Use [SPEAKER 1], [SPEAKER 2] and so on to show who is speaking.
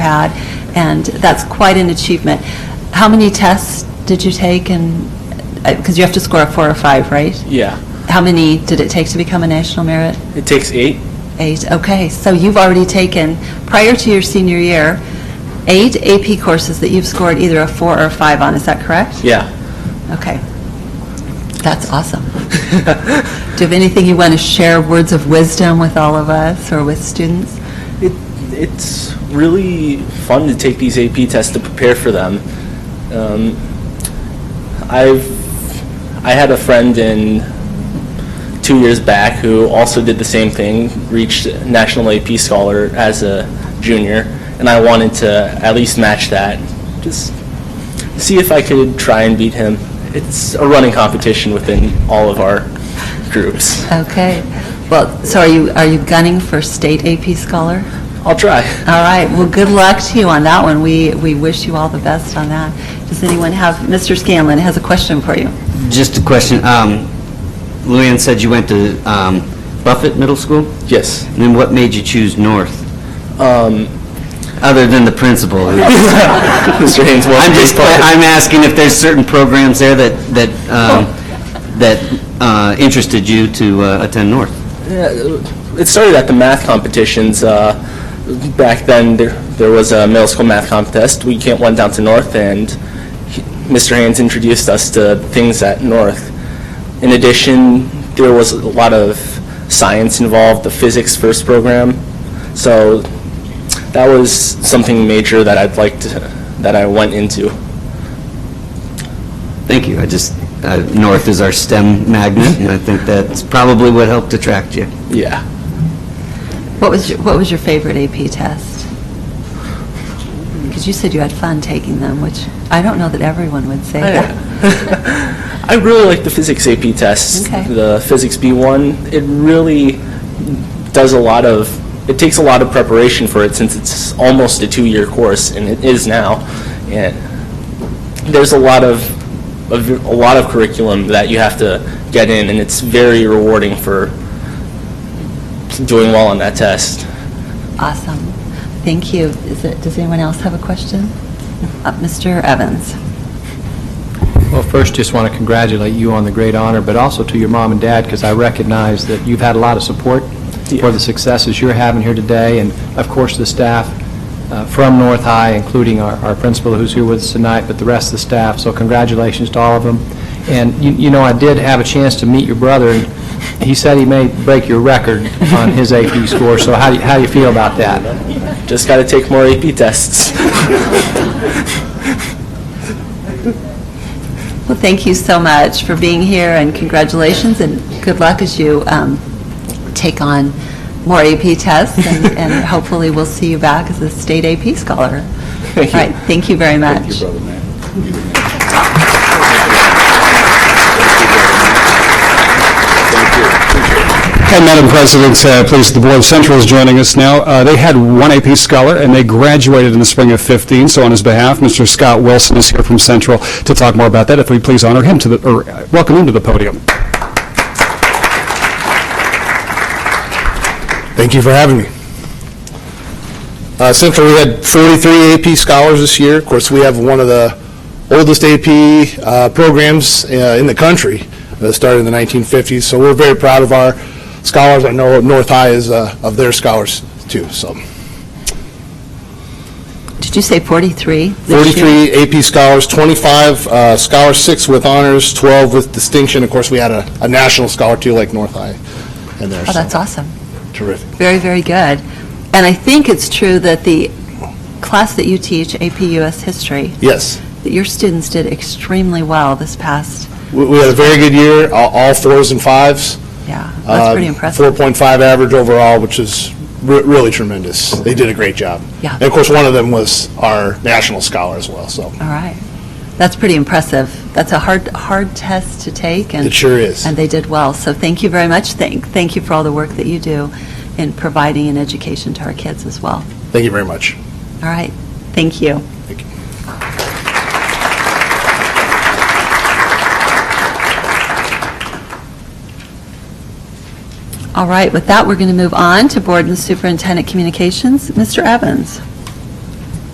[SPEAKER 1] had, and that's quite an achievement. How many tests did you take, and, because you have to score a four or five, right?
[SPEAKER 2] Yeah,
[SPEAKER 1] How many did it take to become a national merit?
[SPEAKER 2] it takes eight.
[SPEAKER 1] Eight, okay, so you've already taken, prior to your senior year, eight AP courses that you've scored either a four or a five on, is that correct?
[SPEAKER 2] Yeah.
[SPEAKER 1] Okay, that's awesome. Do you have anything you want to share, words of wisdom with all of us, or with students?
[SPEAKER 2] It, it's really fun to take these AP tests to prepare for them. Um, I've I had a friend in two years back who also did the same thing, reached national AP scholar as a junior, and I wanted to at least match that. Just see if I could try and beat him. It's a running competition within all of our groups.
[SPEAKER 1] Okay. Well, so are you, are you gunning for state AP scholar?
[SPEAKER 2] I'll try.
[SPEAKER 1] All right, well, good luck to you on that one. We, we wish you all the best on that. Does anyone have, Mr. Scanlon has a question for you.
[SPEAKER 3] Just a question. Um, Luann said you went to um, Buffett Middle School?
[SPEAKER 2] Yes.
[SPEAKER 3] And then what made you choose North,
[SPEAKER 2] Um,
[SPEAKER 3] other than the principal? I'm
[SPEAKER 2] Mr. Haynes, welcome.
[SPEAKER 3] just, I'm asking if there's certain programs there that, that, um, that uh, interested you to uh, attend North?
[SPEAKER 2] Yeah, uh, It started at the math competitions. Uh, back then, there, there was a middle school math contest. We came, went down to North, and he- Mr. Haynes introduced us to things at North. In addition, there was a lot of science involved, the physics first program. So that was something major that I'd like to, that I went into.
[SPEAKER 3] Thank you. I just, uh, North is our STEM magnet, and I think that's probably what helped attract you.
[SPEAKER 2] Yeah.
[SPEAKER 1] What was, your- what was your favorite AP test? Because you said you had fun taking them, which I don't know that everyone would
[SPEAKER 2] Oh,
[SPEAKER 1] say that.
[SPEAKER 2] I really like the physics AP test,
[SPEAKER 1] Okay.
[SPEAKER 2] the physics B1. It really does a lot of, it takes a lot of preparation for it since it's almost a two-year course, and it is now. And there's a lot of, a v- a lot of curriculum that you have to get in, and it's very rewarding for doing well on that test.
[SPEAKER 1] Awesome. Thank you. Is it, does anyone else have a question? Uh, Mr. Evans?
[SPEAKER 4] Well, first, just want to congratulate you on the great honor, but also to your mom and dad, because I recognize that you've had a lot of support
[SPEAKER 2] Yeah.
[SPEAKER 4] for the successes you're having here today, and of course, the staff uh, from North High, including our our principal who's here with us tonight, but the rest of the staff, so congratulations to all of them. And, you- you know, I did have a chance to meet your brother, and he said he may break your record on his AP score, so how do you- how do you feel about that?
[SPEAKER 2] Just got to take more AP tests.
[SPEAKER 1] Well, thank you so much for being here, and congratulations, and good luck as you um, take on more AP tests, and and hopefully we'll see you back as a state AP scholar. All
[SPEAKER 2] Thank you.
[SPEAKER 1] right, thank you very much.
[SPEAKER 5] Hi, Madam President, uh, pleased the Board of Central is joining us now. Uh, They had one AP scholar, and they graduated in the spring of 15, so on his behalf, Mr. Scott Wilson is here from Central to talk more about that. If we please honor him to the, or uh, welcome him to the podium.
[SPEAKER 6] Thank you for having me. Uh, Central, we had 43 AP scholars this year. Of course, we have one of the oldest AP uh, programs uh, in the country, that started in the 1950s, so we're very proud of our scholars. I know North High is uh, of their scholars, too, so.
[SPEAKER 1] Did you say 43? this year?
[SPEAKER 6] 43 AP scholars, 25 uh, scholars, six with honors, 12 with distinction. Of course, we had a a national scholar, too, like North High in there,
[SPEAKER 1] Oh, that's
[SPEAKER 6] so
[SPEAKER 1] awesome.
[SPEAKER 6] terrific.
[SPEAKER 1] Very, very good. And I think it's true that the class that you teach, AP US History,
[SPEAKER 6] Yes.
[SPEAKER 1] that your students did extremely well this past,
[SPEAKER 6] We we had a very good year, all all fours and fives.
[SPEAKER 1] yeah, that's pretty
[SPEAKER 6] Um,
[SPEAKER 1] impressive.
[SPEAKER 6] 4.5 average overall, which is re- really tremendous. They did a great job.
[SPEAKER 1] Yeah.
[SPEAKER 6] And of course, one of them was our national scholar as well, so
[SPEAKER 1] All right. That's pretty impressive. That's a hard, hard test to take, and...
[SPEAKER 6] it sure is.
[SPEAKER 1] And they did well, so thank you very much. Thank, thank you for all the work that you do in providing an education to our kids as well.
[SPEAKER 6] Thank you very much.
[SPEAKER 1] All right, thank you.
[SPEAKER 6] Thank you.
[SPEAKER 1] All right, with that, we're going to move on to Board and Superintendent Communications. Mr. Evans?